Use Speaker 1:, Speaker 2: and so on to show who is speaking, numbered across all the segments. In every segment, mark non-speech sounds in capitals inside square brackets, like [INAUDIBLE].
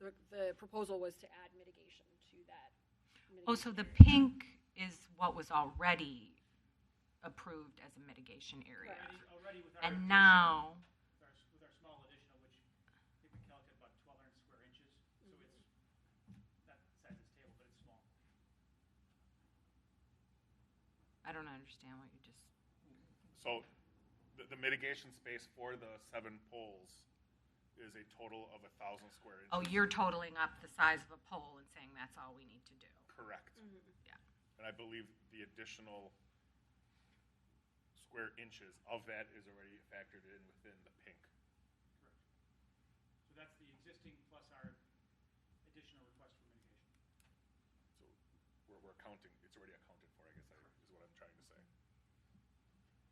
Speaker 1: the, the proposal was to add mitigation to that.
Speaker 2: Oh, so
Speaker 1: mitigation
Speaker 2: the
Speaker 1: area.
Speaker 2: pink is what was already approved as a mitigation area.
Speaker 3: Already- Already with our.
Speaker 2: And now,
Speaker 3: With our, s- with our small additional, which I think we calculated about twelve hundred square inches, so it's, not the size of this table, but it's small.
Speaker 2: I don't understand what you just,
Speaker 4: So the, the mitigation space for the seven poles is a total of a thousand square inches.
Speaker 2: oh, you're totaling up the size of a pole and saying that's all we need to do.
Speaker 4: Correct.
Speaker 2: Yeah.
Speaker 4: And I believe the additional square inches of that is already factored in within the pink.
Speaker 3: Correct. So that's the existing plus our additional request for mitigation.
Speaker 4: So we're, we're counting, it's already accounted for, I guess, I- is what I'm trying to say.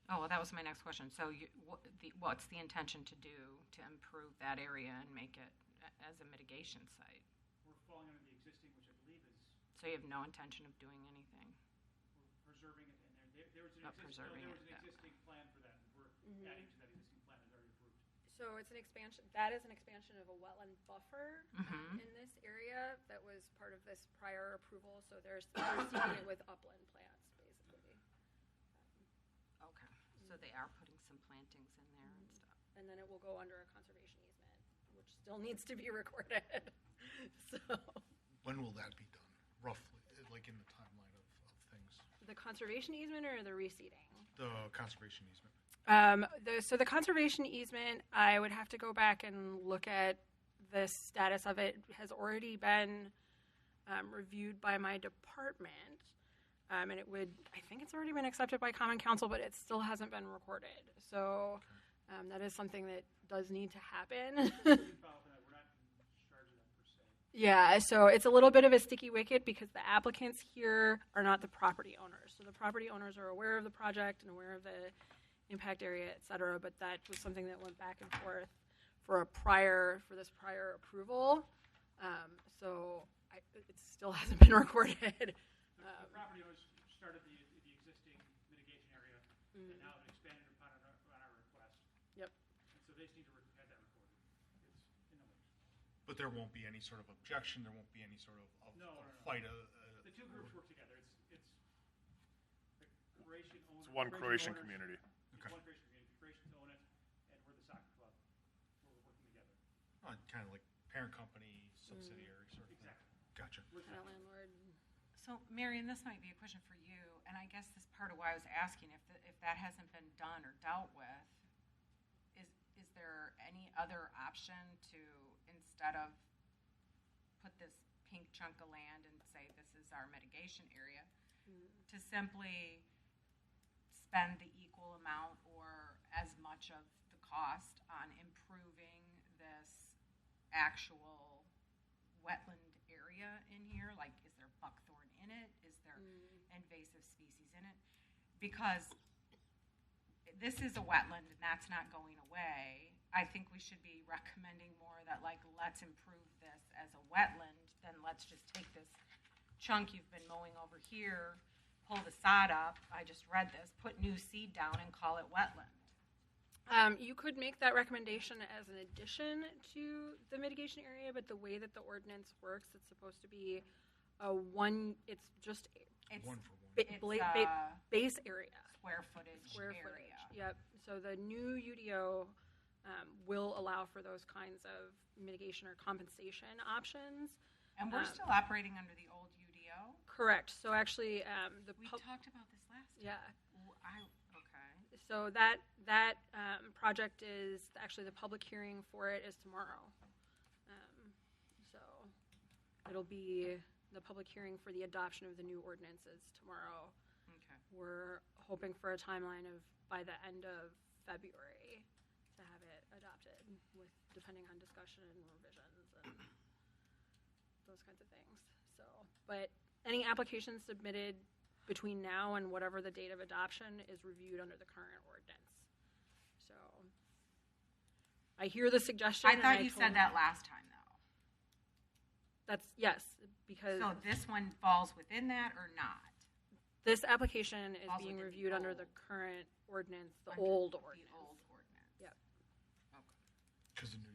Speaker 2: Oh, well, that was my next question. So you, what, the, what's the intention to do to improve that area and make it a- as a mitigation site?
Speaker 3: We're falling under the existing, which I believe is,
Speaker 2: So you have no intention of doing anything?
Speaker 3: we're preserving it in there. There, there was an
Speaker 2: Not
Speaker 3: existing,
Speaker 2: preserving
Speaker 3: there
Speaker 2: it,
Speaker 3: was an
Speaker 2: yeah.
Speaker 3: existing plan for that, and we're
Speaker 1: Mhm.
Speaker 3: adding to that existing plan that's already approved.
Speaker 1: So it's an expansion, that is an expansion of a wetland buffer
Speaker 2: Mhm.
Speaker 1: in this area that was part of this prior approval, so there's, they're seeing it with upland plants, basically.
Speaker 2: Okay, so they are putting some plantings in there and stuff.
Speaker 1: And then it will go under a conservation easement, which still needs to be [LAUGHS] recorded, so.
Speaker 5: When will that be done, roughly, like in the timeline of, of things?
Speaker 1: The conservation easement or the reseeding?
Speaker 5: The conservation easement.
Speaker 1: Um, the, so the conservation easement, I would have to go back and look at the status of it. Has already been um, reviewed by my department, um, and it would. I think it's already been accepted by Common Council, but it still hasn't been recorded. So um, that is something that does need to happen. [LAUGHS]
Speaker 3: We can follow up on that. We're not in charge of that per se.
Speaker 1: Yeah, so it's a little bit of a sticky wicket because the applicants here are not the property owners. So the property owners are aware of the project and aware of the impact area, et cetera, but that was something that went back and forth for a prior, for this prior approval. Um, so I, it still [LAUGHS] hasn't been recorded.
Speaker 3: The-
Speaker 1: Um,
Speaker 3: The property owners started the, the existing mitigation area, and now have expanded upon our, on our request.
Speaker 1: Mm. Yep.
Speaker 3: And so they just need to re- have that recorded. It's in the works.
Speaker 5: But there won't be any sort of objection, there won't be any sort of, of
Speaker 3: No,
Speaker 5: of
Speaker 3: no, no.
Speaker 5: fight, uh,
Speaker 3: The two
Speaker 5: uh,
Speaker 3: groups work together. It's, it's the Croatian owner.
Speaker 4: It's one Croatian
Speaker 3: owners-
Speaker 4: community.
Speaker 3: It's
Speaker 5: Okay.
Speaker 3: one Croatian community. Croatians own it, and we're the soccer club. We're working together.
Speaker 5: kind of uh, like parent company, subsidiary sort of thing.
Speaker 3: Exactly.
Speaker 5: Gotcha.
Speaker 3: We're
Speaker 1: Kind of landlord.
Speaker 2: So, Marion, this might be a question for you, and I guess this part of why I was asking if, th- if that hasn't been done or dealt with, is, is there any other option to, instead of put this pink chunk of land and say this is our mitigation area, to simply spend the equal amount or as much of the cost on improving this actual wetland area in here? Like, is there buckthorn in it? Is there invasive species in it? Because this is a wetland and that's not going away. I think we should be recommending more that like, let's improve this as a wetland, then let's just take this chunk you've been mowing over here, pull the sod up, I just read this, put new seed down and call it wetland.
Speaker 1: Um, you could make that recommendation as an addition to the mitigation area, but the way that the ordinance works, it's supposed to be a one, it's just
Speaker 2: It's,
Speaker 5: One for one.
Speaker 1: ba-
Speaker 2: it's
Speaker 1: bla- ba-
Speaker 2: a
Speaker 1: base area,
Speaker 2: square footage
Speaker 1: square footage.
Speaker 2: uh, area.
Speaker 1: Yep. So the new UDO um, will allow for those kinds of mitigation or compensation options.
Speaker 2: And we're
Speaker 1: Um,
Speaker 2: still operating under the old UDO?
Speaker 1: Correct. So actually, um, the
Speaker 2: We
Speaker 1: pub-
Speaker 2: talked about this last time.
Speaker 1: yeah.
Speaker 2: Ooh, I, okay.
Speaker 1: So that that um, project is actually the public hearing for it is tomorrow. Um, so it'll be the public hearing for the adoption of the new ordinances tomorrow.
Speaker 2: Okay.
Speaker 1: We're hoping for a timeline of by the end of February to have it adopted with, depending on discussion and revisions and those kinds of things. So, but any applications submitted between now and whatever the date of adoption is reviewed under the current ordinance. So I hear the suggestion.
Speaker 2: I
Speaker 1: and
Speaker 2: thought you said
Speaker 1: totally-
Speaker 2: that last time though.
Speaker 1: That's, yes, because
Speaker 2: So this one falls within that or not?
Speaker 1: this application is
Speaker 2: Falls
Speaker 1: being
Speaker 2: within the
Speaker 1: reviewed under the
Speaker 2: old-
Speaker 1: current ordinance, the
Speaker 2: Under
Speaker 1: old
Speaker 2: the
Speaker 1: ordinance.
Speaker 2: old ordinance.
Speaker 1: Yep.
Speaker 5: Because the new